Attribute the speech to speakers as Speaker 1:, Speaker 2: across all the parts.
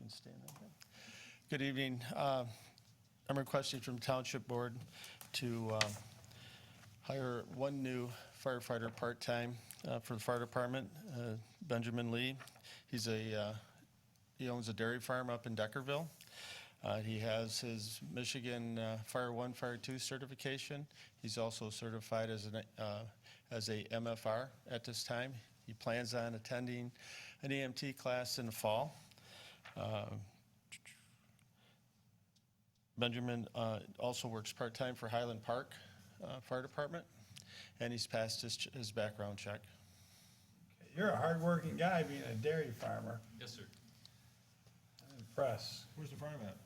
Speaker 1: can stand up. Good evening. Uh, I'm requesting from Township Board to uh, hire one new firefighter part-time uh, for the fire department, uh, Benjamin Lee. He's a, uh, he owns a dairy farm up in Deckerville. Uh, He has his Michigan uh, Fire One, Fire Two certification. He's also certified as an, uh, as a MFR at this time. He plans on attending an EMT class in the fall. Benjamin uh, also works part-time for Highland Park uh, Fire Department, and he's passed his, ch- his background check.
Speaker 2: You're a hardworking guy being a dairy farmer.
Speaker 3: Yes, sir.
Speaker 2: I'm impressed.
Speaker 4: Where's the farm at?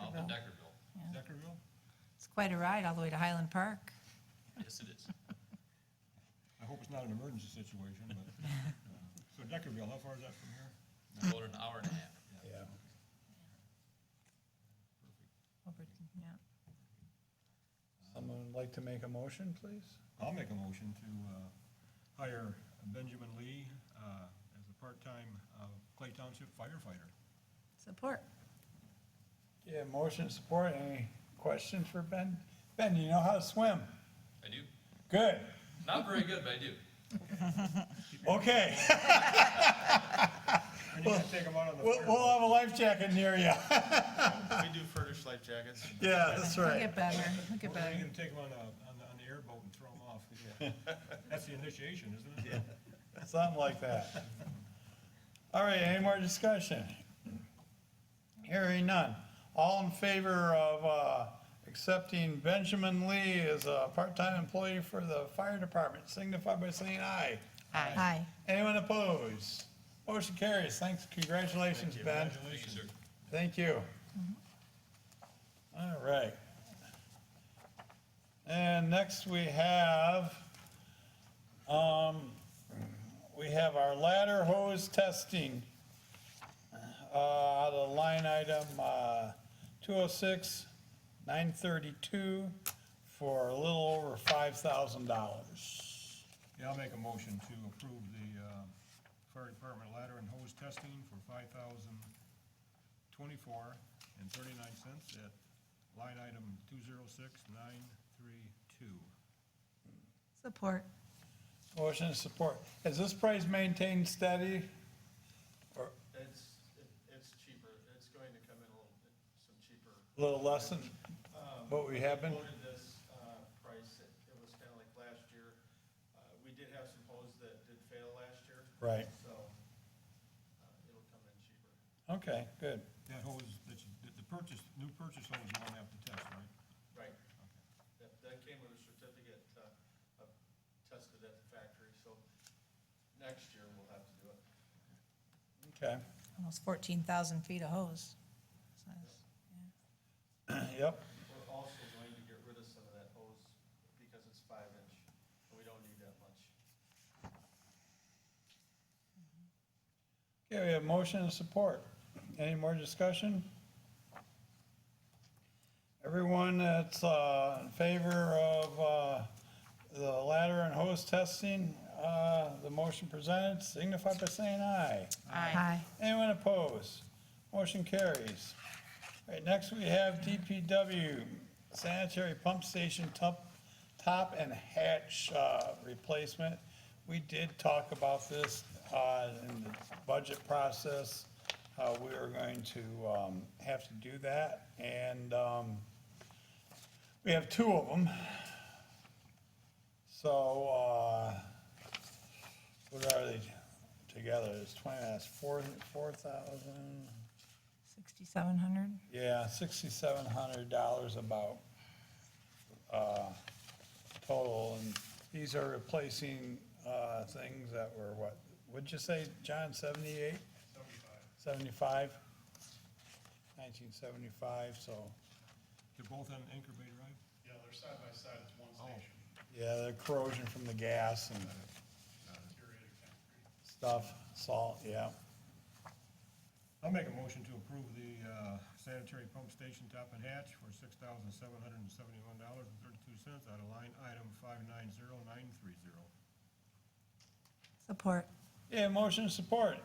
Speaker 3: Off of Deckerville.
Speaker 4: Deckerville?
Speaker 5: It's quite a ride all the way to Highland Park.
Speaker 3: Yes, it is.
Speaker 4: I hope it's not an emergency situation, but, uh, so Deckerville, how far is that from here?
Speaker 3: About an hour and a half.
Speaker 2: Yeah.
Speaker 5: Over- yeah.
Speaker 2: Someone would like to make a motion, please?
Speaker 4: I'll make a motion to uh, hire Benjamin Lee uh, as a part-time uh, Clay Township firefighter.
Speaker 5: Support.
Speaker 2: Yeah, motion support. Any questions for Ben? Ben, you know how to swim?
Speaker 3: I do.
Speaker 2: Good.
Speaker 3: Not very good, but I do.
Speaker 2: Okay.
Speaker 4: And you can take him out on the
Speaker 2: We'll, we'll
Speaker 4: fire.
Speaker 2: have a life jacket near you.
Speaker 1: We do furnish life jackets.
Speaker 2: Yeah, that's
Speaker 5: It'll get better. It'll get
Speaker 4: Or You
Speaker 5: better.
Speaker 4: can take him on a, on the- on the airboat and throw him off. That's the initiation, isn't it?
Speaker 2: Something like that. All right, any more discussion? Hearing none. All in favor of uh, accepting Benjamin Lee as a part-time employee for the fire department, signify by saying aye.
Speaker 5: Aye.
Speaker 2: Anyone opposed? Motion carries. Thanks, congratulations, Ben.
Speaker 3: Thank you, sir.
Speaker 2: Thank you. All right. And next we have, um, we have our ladder hose testing. Uh, out of line item, uh, two oh six, nine thirty-two for a little over five thousand dollars.
Speaker 4: Yeah, I'll make a motion to approve the uh, fire department ladder and hose testing for five thousand twenty-four and thirty-nine cents at line item two zero six nine three two.
Speaker 5: Support.
Speaker 2: Motion and support. Has this price maintained steady? Or
Speaker 1: It's, it's cheaper. It's going to come in a little bit, some cheaper.
Speaker 2: a little less than uh, what we have been?
Speaker 1: Quoted this uh, price, it it was kind of like last year. Uh, We did have some hoses that did fail last year.
Speaker 2: Right.
Speaker 1: So uh, it'll come in cheaper.
Speaker 2: Okay, good.
Speaker 4: That hose, that you, the- the purchase, new purchase hose you don't have to test, right?
Speaker 1: Right. That, that came with a certificate, uh, of- tested at the factory, so next year we'll have to do it.
Speaker 2: Okay,
Speaker 5: Almost 14,000 feet of hose.
Speaker 2: yep.
Speaker 1: We're also going to get rid of some of that hose because it's five inch, and we don't need that much.
Speaker 2: Okay, we have motion and support. Any more discussion? Everyone that's uh, in favor of uh, the ladder and hose testing, uh, the motion presented, signify by saying aye.
Speaker 5: Aye.
Speaker 2: Anyone opposed? Motion carries. All right, next we have DPW sanitary pump station top, top and hatch uh, replacement. We did talk about this uh, in the budget process. Uh, We are going to um, have to do that, and um, we have two of them. So, uh, what are they together? It's twenty, that's four, four thousand,
Speaker 5: 6,700.
Speaker 2: yeah, sixty-seven hundred dollars about, uh, total. And these are replacing, uh, things that were what, what'd you say, John, seventy-eight? Seventy-five? Nineteen seventy-five, so,
Speaker 4: They're both on anchor bay drive?
Speaker 6: Yeah, they're side by side, it's one
Speaker 4: Oh.
Speaker 6: station,
Speaker 2: yeah, the corrosion from the gas and
Speaker 6: deteriorated concrete.
Speaker 2: stuff, salt, yeah.
Speaker 4: I'll make a motion to approve the uh, sanitary pump station top and hatch for six thousand seven hundred and seventy-one dollars and thirty-two cents out of line item five nine zero nine three zero.
Speaker 5: Support.
Speaker 2: Yeah, motion and support.